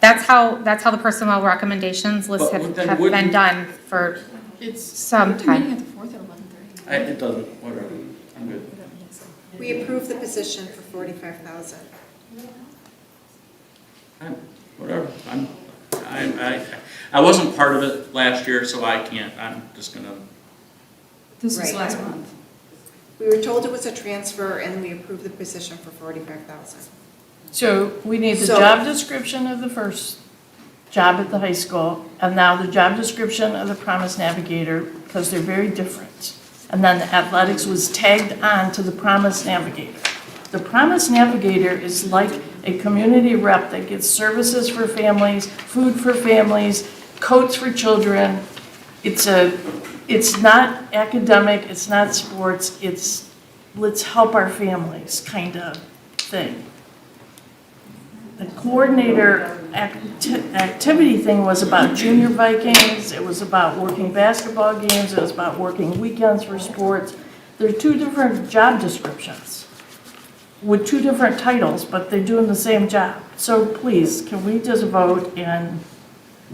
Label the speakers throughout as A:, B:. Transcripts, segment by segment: A: that's how, that's how the personnel recommendations lists
B: But
A: have,
B: then
A: have been
B: wouldn't-
A: done for
C: It's,
A: some
C: meeting
A: time.
C: at the fourth at eleven thirty.
B: I, it doesn't, whatever, I'm good.
D: We approve the position for forty-five thousand.
B: I'm, whatever, I'm, I'm, I, I wasn't part of it last year, so I can't, I'm just gonna,
C: This was
D: Right.
C: last month.
D: We were told it was a transfer and we approved the position for forty-five thousand.
E: So we need the
D: So-
E: job description of the first job at the high school, and now the job description of the Promise Navigator, because they're very different. And then the athletics was tagged on to the Promise Navigator. The Promise Navigator is like a community rep that gets services for families, food for families, coats for children. It's a, it's not academic, it's not sports, it's let's help our families kind of thing. The coordinator acti- activity thing was about junior Vikings, it was about working basketball games, it was about working weekends for sports. They're two different job descriptions with two different titles, but they're doing the same job. So please, can we just vote and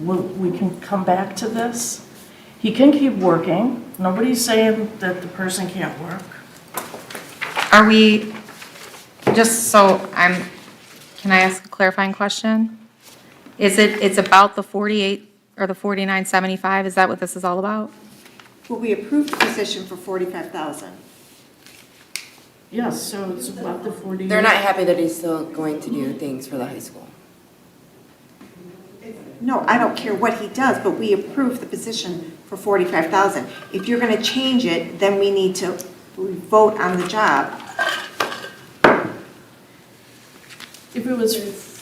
E: we- we can come back to this? He can keep working, nobody's saying that the person can't work.
A: Are we, just so I'm, can I ask a clarifying question? Is it, it's about the 48 or the 4975, is that what this is all about?
D: Well, we approved the position for forty-five thousand.
E: Yes, so it's about the 40.
F: They're not happy that he's still going to do things for the high school.
D: No, I don't care what he does, but we approved the position for forty-five thousand. If you're gonna change it, then we need to vote on the job.
E: If it was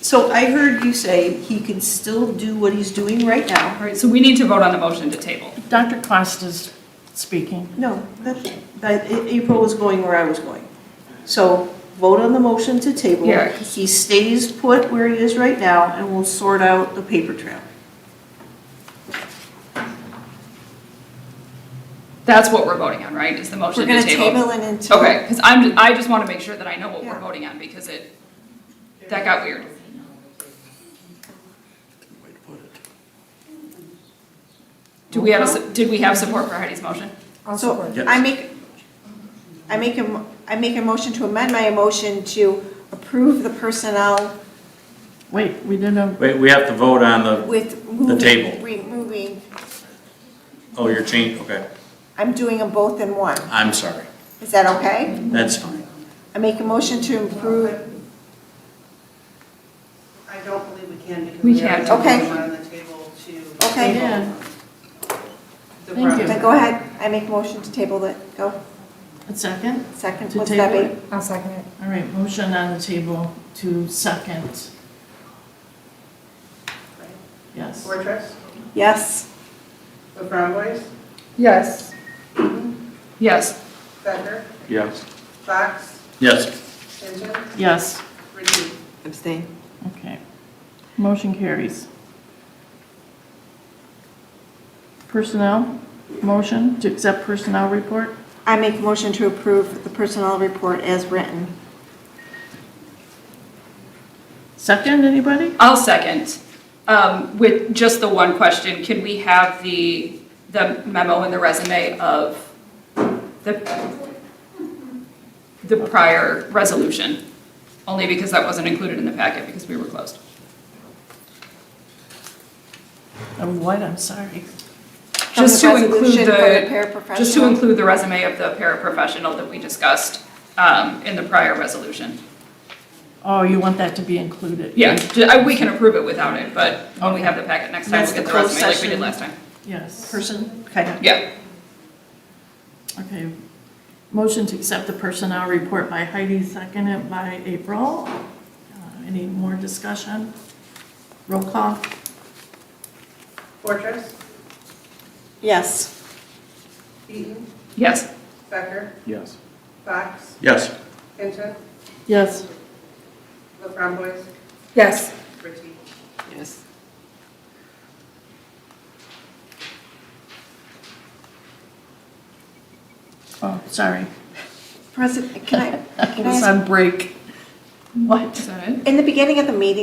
G: So I heard you say he can still do what he's doing right now.
C: All right, so we need to vote on a motion to table.
E: Dr. Costa's speaking.
G: No, that, that, A- April was going where I was going. So vote on the motion to table.
C: Yeah.
G: He stays put where he is right now and we'll sort out the paper trail.
C: That's what we're voting on, right, is the motion
D: We're
C: to
D: gonna
C: table?
D: table it until.
C: Okay, because I'm, ju- I just want to make sure that I know what we're
D: Yeah.
C: voting on, because it, that got weird.
B: way to put it.
C: Do we have, a su- did we have support for Heidi's motion?
D: So
B: Yes.
D: I make, I make a, mo- I make a motion to amend my motion to approve the personnel
E: Wait, we didn't,
B: Wait, we have to vote on the,
D: with moving.
B: table.
D: Removing,
B: oh, you're changing, okay,
D: I'm doing them both in one.
B: I'm sorry,
D: Is that okay?
B: that's fine.
D: I make a motion to approve,
H: I don't believe we can because
C: We
H: we already
C: can't.
H: have
D: Okay.
H: one on the table to.
D: okay,
E: Yeah.
H: the
E: Thank you.
D: then uh, go ahead. I make a motion to table it. Go,
E: a second?
D: second,
E: To
D: what's
E: table
D: that be?
A: I'll second it.
E: All right, motion on the table to second. Yes.
H: Fortress,
D: Yes,
H: the Brown Boys,
C: Yes. Yes.
H: Becker,
B: Yes.
H: Fox,
B: Yes,
H: Hinton,
E: Yes,
H: Reed.
D: abstain.
E: okay. Motion carries. Personnel, motion to accept personnel report?
D: I make a motion to approve the personnel report as written.
E: Second, anybody?
C: I'll second. Um, With just the one question, can we have the, the memo and the resume of the, the prior resolution? Only because that wasn't included in the packet because we were closed.
E: And Oh, what, I'm sorry.
D: From
C: Just
D: the
C: to include
D: resolution
C: the,
D: for the
C: just to
D: paraprofessional.
C: include the resume of the paraprofessional that we discussed um, in the prior resolution.
E: Oh, you want that to be included?
C: Yeah, ju- I- we can approve it without it, but when we have the packet next time,
G: That's
C: we'll get
G: the
C: the
G: closed
C: resume like we did
G: session.
C: last time.
E: Yes.
G: Person, kind of.
C: Yeah.
E: Okay. Motion to accept the personnel report by Heidi, seconded by April. Uh, Any more discussion? Roll call?
H: Fortress,
D: Yes,
H: Eaton,
C: Yes.
H: Becker,
B: yes.
H: Fox,
B: Yes,
H: Hinton,
E: Yes.
H: the Brown Boys,
C: Yes.
H: Reed.
F: Yes.
E: Oh, sorry.
D: President, can I,
E: I
D: can I
E: was
D: ask,
E: on break. What?
C: Is that it?
D: in the beginning of the meeting,